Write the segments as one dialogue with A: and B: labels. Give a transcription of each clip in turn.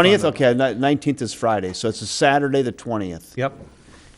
A: Twentieth, okay, nineteenth is Friday, so it's a Saturday, the twentieth.
B: Yep.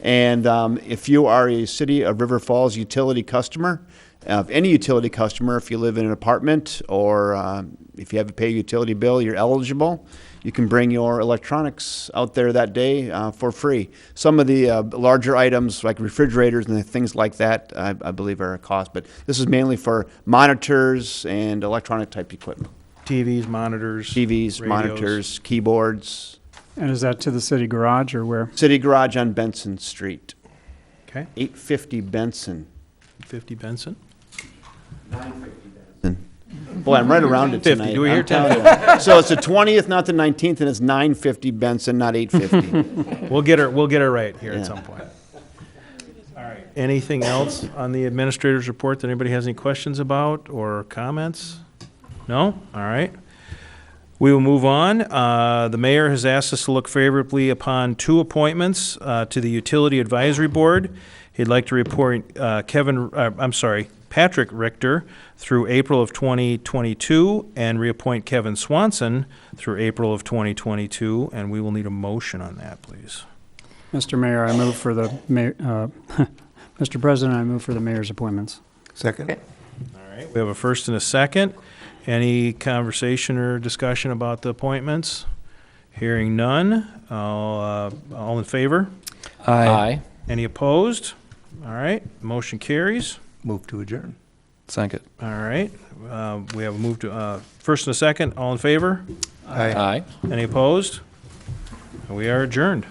A: And um, if you are a City of River Falls utility customer, uh, any utility customer, if you live in an apartment or um, if you have to pay a utility bill, you're eligible. You can bring your electronics out there that day uh, for free. Some of the uh, larger items, like refrigerators and things like that, I, I believe are a cost. But this is mainly for monitors and electronic type equipment
B: TVs, monitors.
A: TVs,
B: radios.
A: monitors, keyboards.
C: And is that to the city garage or where?
A: City Garage on Benson Street,
B: Okay,
A: 850 Benson.
B: 50 Benson.
A: Boy, I'm right around it
B: 50.
A: tonight.
B: Do we hear
A: I'm telling you. So it's the 20th, not the 19th, and it's 950 Benson, not 850.
B: We'll get her, we'll get her right here
A: Yeah.
B: at some point. All right. Anything else on the administrator's report that anybody has any questions about or comments? No? All right. We will move on. Uh, The mayor has asked us to look favorably upon two appointments uh, to the Utility Advisory Board. He'd like to report uh, Kevin, uh, I'm sorry, Patrick Richter through April of 2022 and reappoint Kevin Swanson through April of 2022, and we will need a motion on that, please.
C: Mr. Mayor, I move for the, ma- uh, Mr. President, I move for the mayor's appointments.
D: Second?
B: All right, we have a first and a second. Any conversation or discussion about the appointments? Hearing none. All, uh, all in favor?
E: Aye.
B: Any opposed? All right, motion carries.
D: Move to adjourn.
E: Second.
B: All right, uh, we have a move to, uh, first and a second, all in favor?
D: Aye.
E: Aye.
B: Any opposed? We are adjourned.